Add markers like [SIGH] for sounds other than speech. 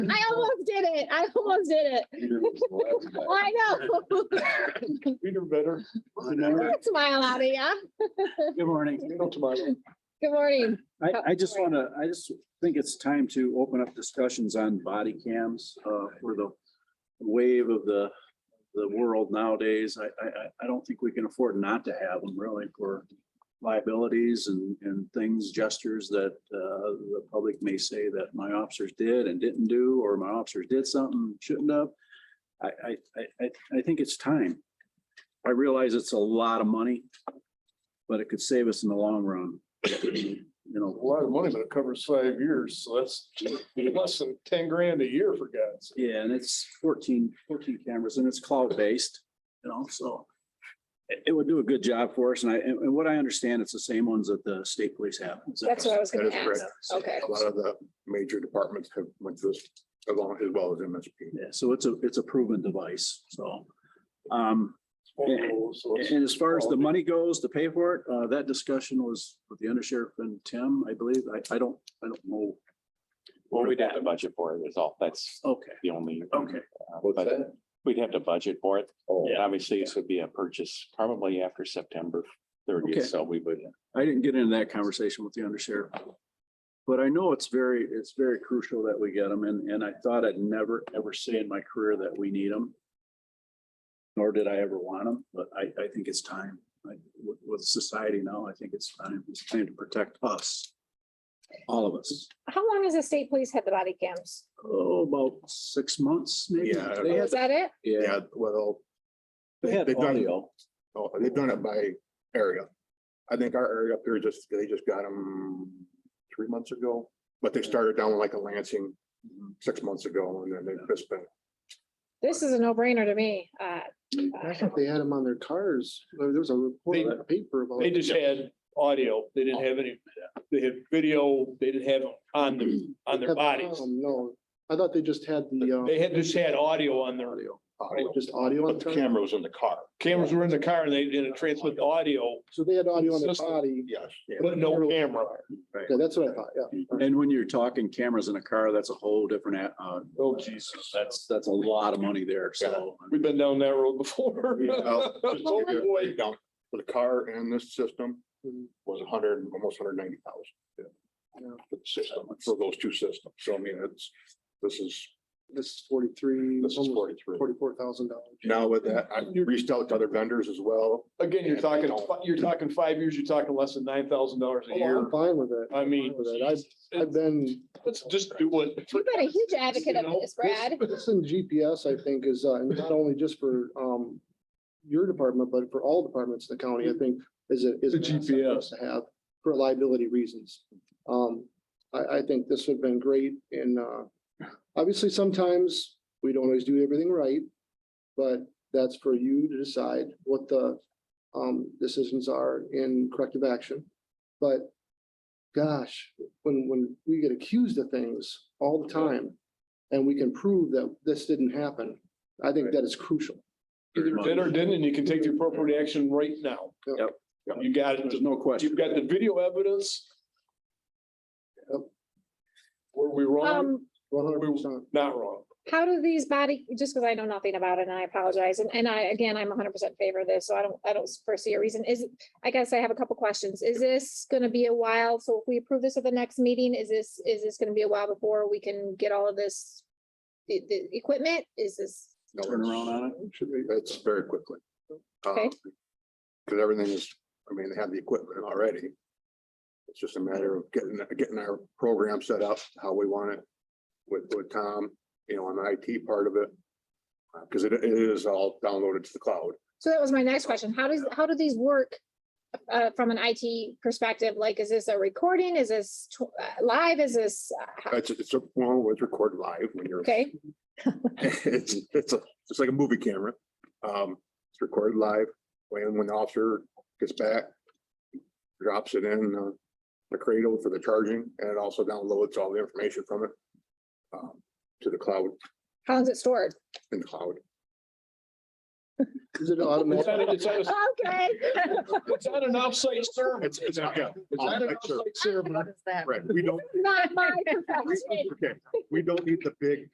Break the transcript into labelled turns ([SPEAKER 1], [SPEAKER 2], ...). [SPEAKER 1] did it. I almost did it. Oh,
[SPEAKER 2] Peter was the last guy.
[SPEAKER 1] I know. [LAUGHS]
[SPEAKER 2] Peter better.
[SPEAKER 1] Smile out of ya.
[SPEAKER 3] Good morning.
[SPEAKER 1] Good morning.
[SPEAKER 3] I, I just want to, I just think it's time to open up discussions on body cams, uh, for the wave of the, the world nowadays. I, I, I, I don't think we can afford not to have them really for liabilities and, and things, gestures that, uh, the public may say that my officers did and didn't do, or my officers did something, shouldn't have. I, I, I, I, I think it's time. I realize it's a lot of money, but it could save us in the long run. You know,
[SPEAKER 2] A lot of money, but it covers five years, so that's [LAUGHS] less than ten grand a year for God's. sake.
[SPEAKER 3] Yeah, and it's 14 14 cameras and it's cloud-based, you know, so. It, it would do a good job for us and I, and and what I understand, it's the same ones that the state police have. Is that-
[SPEAKER 1] That's what I was
[SPEAKER 4] That
[SPEAKER 1] gonna
[SPEAKER 4] is correct.
[SPEAKER 1] ask. Okay.
[SPEAKER 4] A lot of the major departments have went through this along as well as MSP.
[SPEAKER 3] Yeah, so it's a, it's a proven device, so. Um,
[SPEAKER 2] So it's-
[SPEAKER 3] and as far as the money goes to pay for it, uh, that discussion was with the undersheriff and Tim, I believe. I, I don't, I don't know.
[SPEAKER 5] Well, we'd have to budget for it, is all, that's
[SPEAKER 3] Okay,
[SPEAKER 5] the only.
[SPEAKER 3] okay.
[SPEAKER 5] uh,
[SPEAKER 2] What's
[SPEAKER 5] budget.
[SPEAKER 2] that?
[SPEAKER 5] We'd have to budget for it,
[SPEAKER 2] Oh,
[SPEAKER 5] and obviously this would be a purchase probably after September
[SPEAKER 3] Okay.
[SPEAKER 5] thirtieth, so we would.
[SPEAKER 3] I didn't get into that conversation with the undersheriff. But I know it's very, it's very crucial that we get them and, and I thought I'd never, ever say in my career that we need them. Nor did I ever want them, but I, I think it's time. Like with, with society now, I think it's time, it's time to protect us. All of us.
[SPEAKER 1] How long has the state police had the body cams?
[SPEAKER 3] Oh, about six months maybe.
[SPEAKER 4] Yeah, I don't
[SPEAKER 3] They
[SPEAKER 4] know.
[SPEAKER 3] had,
[SPEAKER 1] Is that it?
[SPEAKER 3] yeah,
[SPEAKER 4] Yeah, well,
[SPEAKER 3] they had
[SPEAKER 4] They've done-
[SPEAKER 3] audio.
[SPEAKER 4] oh, they've done it by area. I think our area up here just, they just got them three months ago, but they started down like a Lansing six months ago and then they've just been.
[SPEAKER 1] This is a no-brainer to me. Uh,
[SPEAKER 6] I thought they had them on their cars. There there was a report in the paper about.
[SPEAKER 2] They just had audio. They didn't have any, they had video. They didn't have on them, on their
[SPEAKER 6] Had-
[SPEAKER 2] bodies.
[SPEAKER 6] um, No, I thought they just had the, um,
[SPEAKER 2] They had, just had audio on their,
[SPEAKER 6] audio,
[SPEAKER 4] audio,
[SPEAKER 6] just audio on
[SPEAKER 4] But
[SPEAKER 6] the
[SPEAKER 4] the
[SPEAKER 6] car.
[SPEAKER 4] camera was in the car.
[SPEAKER 2] cameras were in the car and they didn't transmit the audio,
[SPEAKER 6] So they had audio on their
[SPEAKER 2] System.
[SPEAKER 6] body.
[SPEAKER 4] Yes.
[SPEAKER 2] but no camera.
[SPEAKER 6] Yeah, that's what I thought, yeah.
[SPEAKER 3] And when you're talking cameras in a car, that's a whole different, a- uh,
[SPEAKER 2] Oh, Jesus.
[SPEAKER 3] that's, that's a lot of money there. So.
[SPEAKER 2] We've been down that road before.
[SPEAKER 4] Well, just to
[SPEAKER 2] Oh,
[SPEAKER 4] give you a
[SPEAKER 2] boy.
[SPEAKER 4] breakdown, For the car and this system was a hundred, almost hundred ninety thousand.
[SPEAKER 6] Yeah.
[SPEAKER 4] For the system, for those two systems. So I mean, it's, this is,
[SPEAKER 6] This is forty-three,
[SPEAKER 4] this is
[SPEAKER 6] almost
[SPEAKER 4] forty-three.
[SPEAKER 6] forty-four thousand dollars.
[SPEAKER 4] Now with that, I reached out to other vendors as well.
[SPEAKER 2] [LAUGHS] Again, you're talking, you're talking five years, you're talking less than nine thousand dollars a year.
[SPEAKER 6] Oh, I'm fine with it.
[SPEAKER 2] I mean,
[SPEAKER 6] Fine with it. I've, I've been,
[SPEAKER 2] let's just do what.
[SPEAKER 1] You've been a huge advocate of this, Brad.
[SPEAKER 6] this in GPS, I think, is, uh, and not only just for, um, your department, but for all departments in the county, I think, is it, is.
[SPEAKER 2] The
[SPEAKER 6] an asset for
[SPEAKER 2] GPS.
[SPEAKER 6] us To have for liability reasons. Um, I, I think this would have been great and, uh, obviously sometimes we don't always do everything right. But that's for you to decide what the, um, decisions are in corrective action. But gosh, when, when we get accused of things all the time and we can prove that this didn't happen, I think that is crucial.
[SPEAKER 2] Either did or didn't, and you can take the appropriate action right now.
[SPEAKER 6] Yep.
[SPEAKER 2] You got it.
[SPEAKER 3] There's no question.
[SPEAKER 2] You've got the video evidence.
[SPEAKER 6] Yep.
[SPEAKER 2] Were we wrong?
[SPEAKER 1] Um,
[SPEAKER 6] One hundred percent.
[SPEAKER 2] Not wrong.
[SPEAKER 1] how do these body, just because I know nothing about it and I apologize, and, and I, again, I'm hundred percent favor of this, so I don't, I don't foresee a reason, is, I guess I have a couple questions, is this gonna be a while, so if we approve this at the next meeting, is this, is this gonna be a while before we can get all of this? The, the equipment, is this,
[SPEAKER 3] Turn around on it.
[SPEAKER 4] Should be, it's very quickly.
[SPEAKER 1] Okay.
[SPEAKER 4] Because everything is, I mean, they have the equipment already. It's just a matter of getting, getting our program set up, how we want it with, with Tom, you know, on the IT part of it. Because it it is all downloaded to the cloud.
[SPEAKER 1] so that was my next question, how does, how do these work? Uh, from an IT perspective, like, is this a recording, is this tw- uh, live, is this, uh, how-
[SPEAKER 4] It's, it's, a well, it's recorded live when you're.
[SPEAKER 1] okay,
[SPEAKER 4] It's, it's, a- it's like a movie camera. Um, it's recorded live. When, when the officer gets back, drops it in uh, the cradle for the charging and it also downloads all the information from it um, to the cloud,
[SPEAKER 1] how is it stored?
[SPEAKER 4] in the cloud.
[SPEAKER 6] Is it
[SPEAKER 2] It's on,
[SPEAKER 6] automatic?
[SPEAKER 2] it's on,
[SPEAKER 1] Okay.
[SPEAKER 2] it's on an offsite server.
[SPEAKER 4] It's, it's, yeah. it's
[SPEAKER 2] On
[SPEAKER 4] on
[SPEAKER 2] an
[SPEAKER 4] that server.
[SPEAKER 2] offsite server.
[SPEAKER 4] Right, we don't,
[SPEAKER 1] Not my. [LAUGHS]
[SPEAKER 4] we- okay, we don't need the big